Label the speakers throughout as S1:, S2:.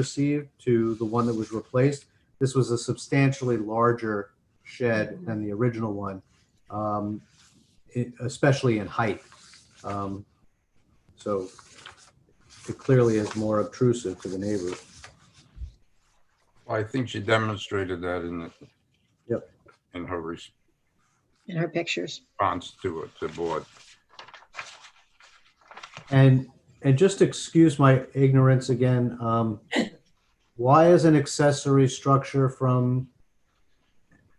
S1: received to the one that was replaced. This was a substantially larger shed than the original one, um, e- especially in height. Um, So it clearly is more obtrusive to the neighbors.
S2: I think she demonstrated that in the.
S1: Yep.
S2: In her response
S3: in her pictures.
S2: to it, the board.
S1: And, and just excuse my ignorance again, um, why is an accessory structure from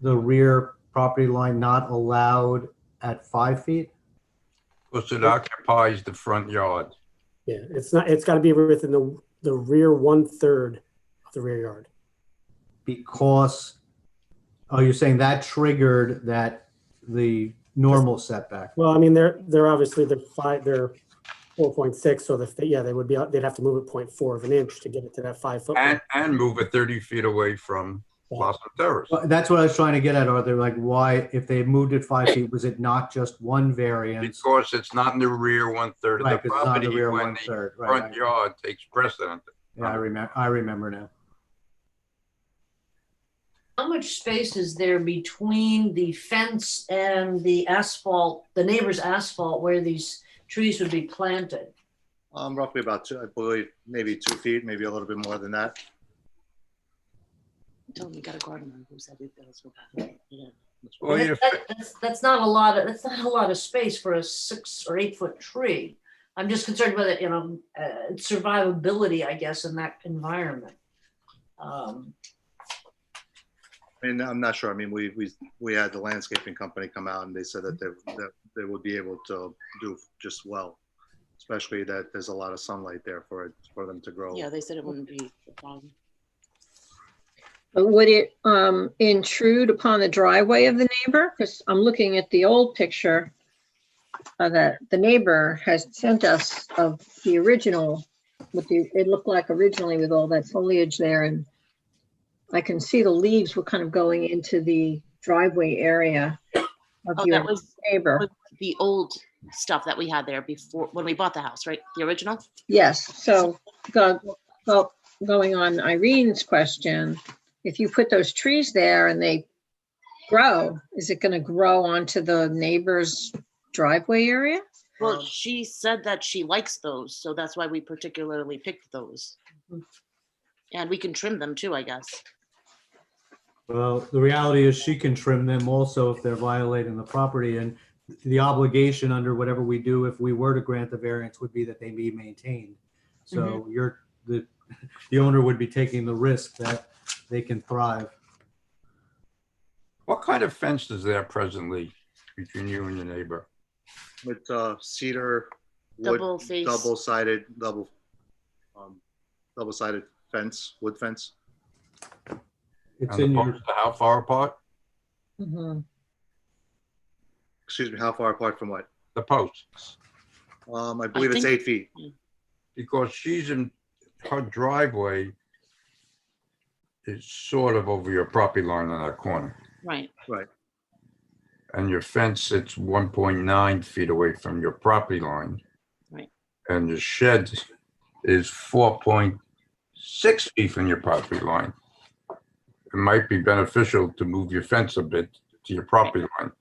S1: the rear property line not allowed at five feet?
S2: Because it occupies the front yard.
S4: Yeah, it's not, it's gotta be within the, the rear one-third of the rear yard.
S1: Because, oh, you're saying that triggered that the normal setback?
S4: Well, I mean, they're, they're obviously, they're five, they're four point six, so the, yeah, they would be, they'd have to move it point four of an inch to get it to that five foot.
S2: And, and move it 30 feet away from Blossom Terrace.
S1: Well, That's what I was trying to get at, Arthur, like why, if they moved it five feet, was it not just one variance?
S2: Because it's not in the rear one-third
S1: Right,
S2: of the
S1: because it's not
S2: property
S1: the rear
S2: when
S1: one
S2: the
S1: third, right?
S2: front
S1: right.
S2: yard takes precedent.
S1: Yeah, I remember, I remember now.
S5: How much space is there between the fence and the asphalt, the neighbor's asphalt where these trees would be planted?
S6: Um, roughly about two, I believe, maybe two feet, maybe a little bit more than that.
S7: Tell me, Oh, got a garden on who's that? It does. Yeah.
S2: Well,
S5: That-
S2: your,
S5: that- That's, that's not a lot, of that's not a lot of space for a six or eight foot tree. I'm just concerned with it, you know, uh, survivability, I guess, in that environment. Um,
S6: I mean, I'm not sure. I mean, we, we, we had the landscaping company come out and they said that they, that they would be able to do just well. Especially that there's a lot of sunlight there for, it for them to grow.
S7: Yeah, they said it wouldn't be a problem.
S3: But Uh, would it um, intrude upon the driveway of the neighbor? Because I'm looking at the old picture uh, that the neighbor has sent us of the original, with the, it looked like originally with all that foliage there and I can see the leaves were kind of going into the driveway area
S7: Oh,
S3: of
S7: that
S3: your
S7: was
S3: neighbor.
S7: was- the old stuff that we had there before, when we bought the house, right? The original?
S3: Yes, so go, go, going on Irene's question, if you put those trees there and they grow, is it gonna grow onto the neighbor's driveway area?
S7: Well,
S5: Um,
S7: she said that she likes those, so that's why we particularly picked those.
S5: Mhm.
S7: And we can trim them too, I guess.
S1: Well, the reality is she can trim them also if they're violating the property and the obligation under whatever we do, if we were to grant the variance, would be that they be maintained. So you're, the, the owner would be taking the risk that they can thrive.
S2: what kind of fence is there presently between you and your neighbor?
S6: With, uh, cedar, wood,
S7: Double face.
S6: double sided, double, um, double sided fence, wood fence.
S1: It's in
S2: And the
S1: your,
S2: posts are how far apart?
S3: Mhm.
S6: Excuse me, how far apart from what?
S2: The posts.
S6: Um, I believe it's
S7: think-
S6: eight feet.
S2: because she's in, her driveway is sort of over your property line on that corner,
S7: Right.
S2: and your fence sits one point nine feet away from your property line.
S7: Right.
S2: And your shed is four point six feet from your property line. It might be beneficial to move your fence a bit to your property line,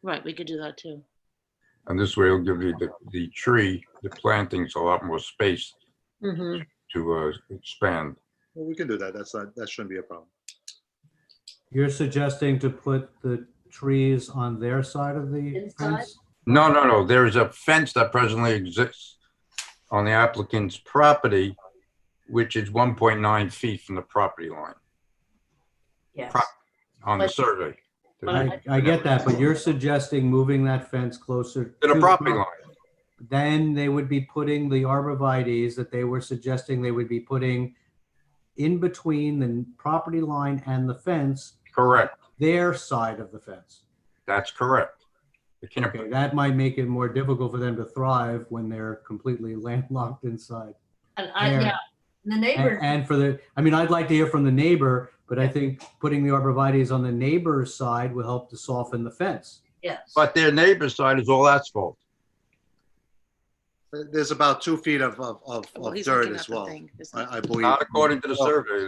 S7: Right, we could do that too.
S2: and this way it'll give you the, the tree, the plantings a lot more space
S3: mhm.
S2: to, uh, expand.
S6: Well, we can do that. That's not, that shouldn't be a problem.
S1: you're suggesting to put the trees on their side of the
S5: Inside?
S1: fence?
S2: No, no, no, there is a fence that presently exists on the applicant's property, which is one point nine feet from the property line,
S5: yes.
S2: Pro- on the
S5: But-
S2: survey. To
S1: I, I get that, but you're suggesting moving that fence closer.
S2: the
S1: to
S2: property line,
S1: then they would be putting the arborvitae's that they were suggesting they would be putting in between the property line and the fence,
S2: correct,
S1: their side of the fence.
S2: that's correct. They can't,
S1: Okay, that might make it more difficult for them to thrive when they're completely landlocked inside.
S5: And I,
S1: There.
S5: yeah, the neighbor,
S1: And and for the, I mean, I'd like to hear from the neighbor, but I think putting the arborvitae's on the neighbor's side will help to soften the fence.
S5: yes.
S2: but their neighbor's side is all asphalt.
S7: There's about two feet of, of, of
S6: Well,
S7: of
S6: he's
S7: dirt
S6: looking at
S7: as
S6: the
S7: well,
S6: thing. There's no-
S7: I, I believe.
S2: Not according to the survey,